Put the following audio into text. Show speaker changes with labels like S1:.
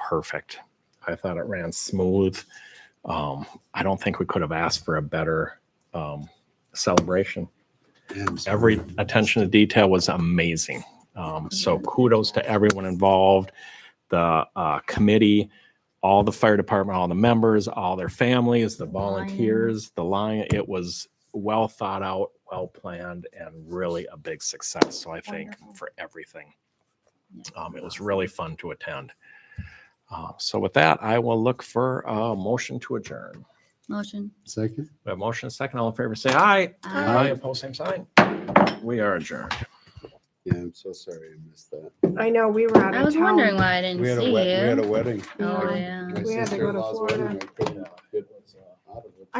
S1: perfect. I thought it ran smooth. Um, I don't think we could have asked for a better um, celebration. Every attention to detail was amazing. Um, so kudos to everyone involved, the uh, committee, all the fire department, all the members, all their families, the volunteers, the lion. It was well thought out, well planned, and really a big success. So I thank 'em for everything. Um, it was really fun to attend. Uh, so with that, I will look for a motion to adjourn.
S2: Motion.
S3: Second?
S1: We have motion and second. All in favor, say aye.
S2: Aye.
S1: Opposed, same sign. We are adjourned.
S3: Yeah, I'm so sorry I missed that.
S4: I know, we were out
S2: I
S4: of
S2: was
S4: town.
S2: wondering why I didn't
S3: We had a
S2: see
S3: wed- we had
S2: you.
S3: a wedding.
S2: Oh, yeah.
S3: My
S4: We had to go to
S3: sister-in-law's wedding.
S4: Florida.
S3: I couldn't- uh, it